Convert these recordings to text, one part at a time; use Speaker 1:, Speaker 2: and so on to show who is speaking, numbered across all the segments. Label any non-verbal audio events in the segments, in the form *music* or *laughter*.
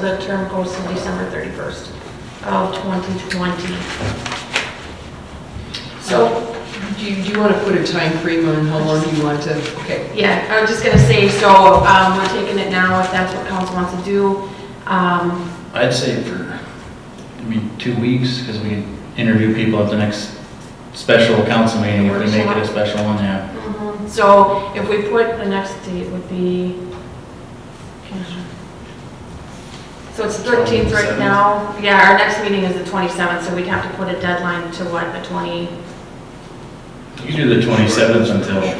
Speaker 1: The term goes to December 31st of 2020.
Speaker 2: So, do you, do you want to put a time frame on how long you want to, okay,
Speaker 1: Yeah, I was just gonna say, so, um, we're taking it now, if that's what council wants to do. Um,
Speaker 3: I'd say for, I mean, two weeks, because we interview people at the next special council meeting, if we make it a special one, yeah.
Speaker 1: so if we put, the next date would be, so it's the 13th right
Speaker 3: 27th.
Speaker 1: now. Yeah, our next meeting is the 27th, so we'd have to put a deadline to what, the 20?
Speaker 3: You do the 27th until,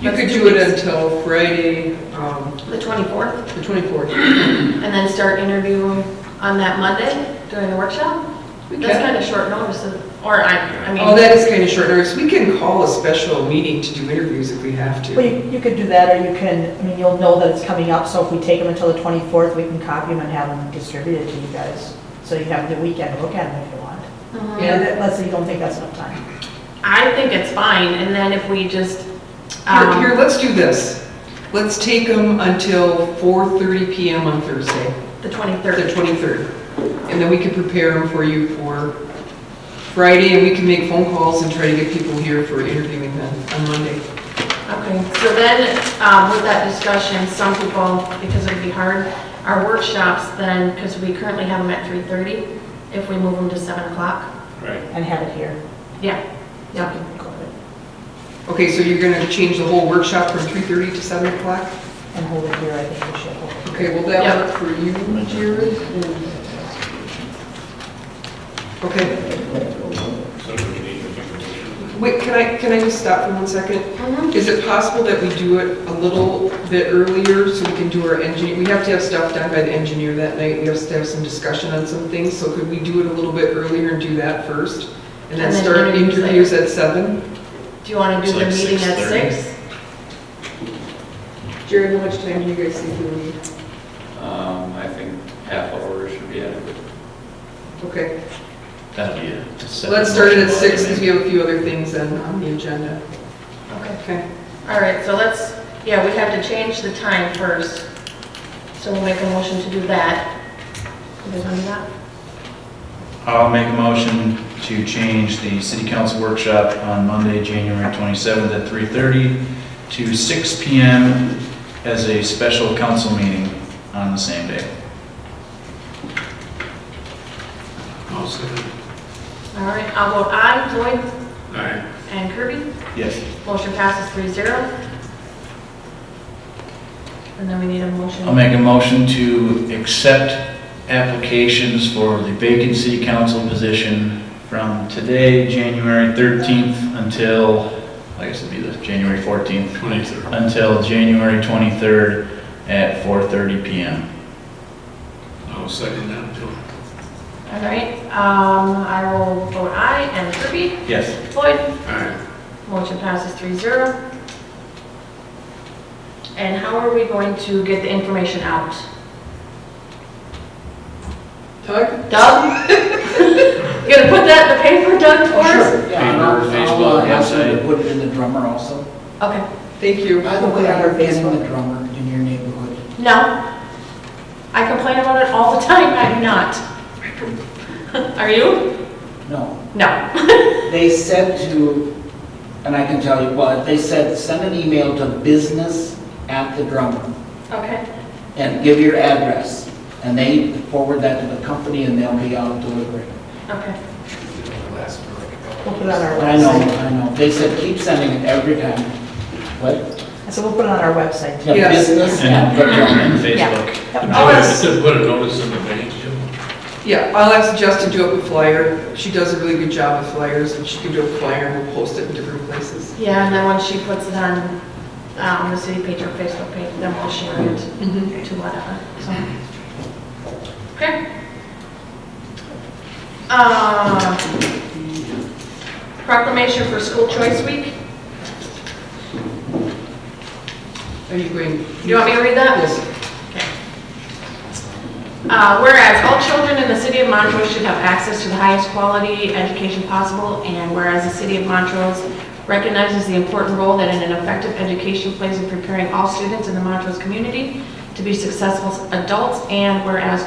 Speaker 2: you could do it until Friday, um,
Speaker 1: The 24th,
Speaker 2: the 24th.
Speaker 1: and then start interviewing on that Monday during the workshop?
Speaker 2: We
Speaker 1: That's
Speaker 2: can-
Speaker 1: kind of short notice, or I, I mean.
Speaker 2: Oh, that is kind of short notice. We can call a special meeting to do interviews if we have
Speaker 4: Well,
Speaker 2: to.
Speaker 4: you, you could do that, or you can, I mean, you'll know that it's coming up, so if we take them until the 24th, we can copy them and have them distributed to you guys. So you have the weekend to look at them if you want.
Speaker 1: Mhm.
Speaker 2: Yeah.
Speaker 4: And let's say you don't think that's enough time.
Speaker 1: I think it's fine, and then if we just,
Speaker 2: Here, here,
Speaker 1: um,
Speaker 2: let's do this. Let's take them until 4:30 PM on Thursday,
Speaker 1: the
Speaker 2: the
Speaker 1: 23rd,
Speaker 2: 23rd. And then we can prepare them for you for Friday, and we can make phone calls and try to get people here for interviewing them on Monday.
Speaker 1: okay, so then, um, with that discussion, some people, because it'd be hard, our workshops then, because we currently have them at 3:30, if we move them to 7 o'clock,
Speaker 3: right,
Speaker 4: And have it here.
Speaker 1: yeah, yeah,
Speaker 2: Okay, so you're gonna change the whole workshop from 3:30 to 7 o'clock?
Speaker 4: And hold it here, I think we should hold it.
Speaker 2: Okay, will that
Speaker 1: Yeah.
Speaker 2: work for you, Jared? Okay. Wait, can I, can I just stop for one second?
Speaker 1: Mhm.
Speaker 2: Is it possible that we do it a little bit earlier so we can do our engineer, we have to have stuff done by the engineer that night, we have to have some discussion on some things, so could we do it a little bit earlier and do that first? And then
Speaker 1: And then
Speaker 2: start
Speaker 1: interviews later.
Speaker 2: interviews at seven?
Speaker 1: Do you want to do
Speaker 3: It's
Speaker 1: the
Speaker 3: like
Speaker 1: meeting at
Speaker 3: 6:30.
Speaker 1: 6?
Speaker 2: Jared, how much time do you guys think we need?
Speaker 5: Um, I think half hour should be adequate.
Speaker 2: Okay.
Speaker 3: that'll be it. Just
Speaker 2: Let's start it at
Speaker 3: motion
Speaker 2: six, because we
Speaker 3: maybe.
Speaker 2: have a few other things on, on the agenda.
Speaker 1: Okay,
Speaker 2: Okay.
Speaker 1: all right, so let's, yeah, we have to change the time first, so we'll make a motion to do that. You guys want to do that?
Speaker 3: I'll make a motion to change the city council workshop on Monday, January 27th at 3:30 to 6 PM as a special council meeting on the same day.
Speaker 1: All right, I'll vote aye, Lloyd
Speaker 5: Alright.
Speaker 1: and Kirby.
Speaker 3: Yes.
Speaker 1: Motion passes three zero. And then we need a motion.
Speaker 3: I'll make a motion to accept applications for the vacant city council position from today, January 13th, until, I guess it'd be the January 14th.
Speaker 5: 23rd.
Speaker 3: Until January 23rd at 4:30 PM.
Speaker 5: I'll second that, Bill.
Speaker 1: All right, um, I will vote aye and Kirby.
Speaker 3: Yes.
Speaker 1: Floyd,
Speaker 5: Alright.
Speaker 1: motion passes three zero. And how are we going to get the information out?
Speaker 2: Doug?
Speaker 1: Doug? You *laughs* gonna put that in the paper, Doug, for us?
Speaker 6: Yeah, I'll-
Speaker 5: Paper,
Speaker 6: I'll,
Speaker 5: Facebook,
Speaker 6: uh, ask you to
Speaker 5: website.
Speaker 6: Put it in the drummer also.
Speaker 1: Okay,
Speaker 2: Thank you.
Speaker 6: By the way, are you getting the drummer in your neighborhood?
Speaker 1: no. I complain about it all the time, I'm not. *laughs* Are you?
Speaker 6: No.
Speaker 1: No.
Speaker 6: They said to, and I can tell you what, they said, send an email to business at the drummer
Speaker 1: Okay.
Speaker 6: and give your address. And they forward that to the company and they'll be out delivering.
Speaker 1: Okay,
Speaker 4: We'll put it on our
Speaker 6: I know,
Speaker 4: website.
Speaker 6: I know. They said, keep sending it every time. What?
Speaker 4: I said, we'll put it on our website. too.
Speaker 6: Yeah,
Speaker 2: Yes.
Speaker 6: business at
Speaker 3: And
Speaker 6: the drummer.
Speaker 3: and Facebook.
Speaker 4: Yep.
Speaker 5: put a notice in the bank, Jim.
Speaker 2: Yeah, I'll ask Jess to do up a flyer. She does a really good job with flyers, and she can do a flyer, and we'll post it in different places.
Speaker 1: yeah, and then once she puts it on, um, the city page or Facebook page, then we'll share it to whatever, so. Okay. Uh, Proclamation for School Choice Week,
Speaker 2: Are you going?
Speaker 1: do you want me to read that?
Speaker 2: Yes.
Speaker 1: Uh, Whereas all children in the city of Montrose should have access to the highest quality education possible, and whereas the city of Montrose recognizes the important role that an effective education plays in preparing all students in the Montrose community to be successful adults, and whereas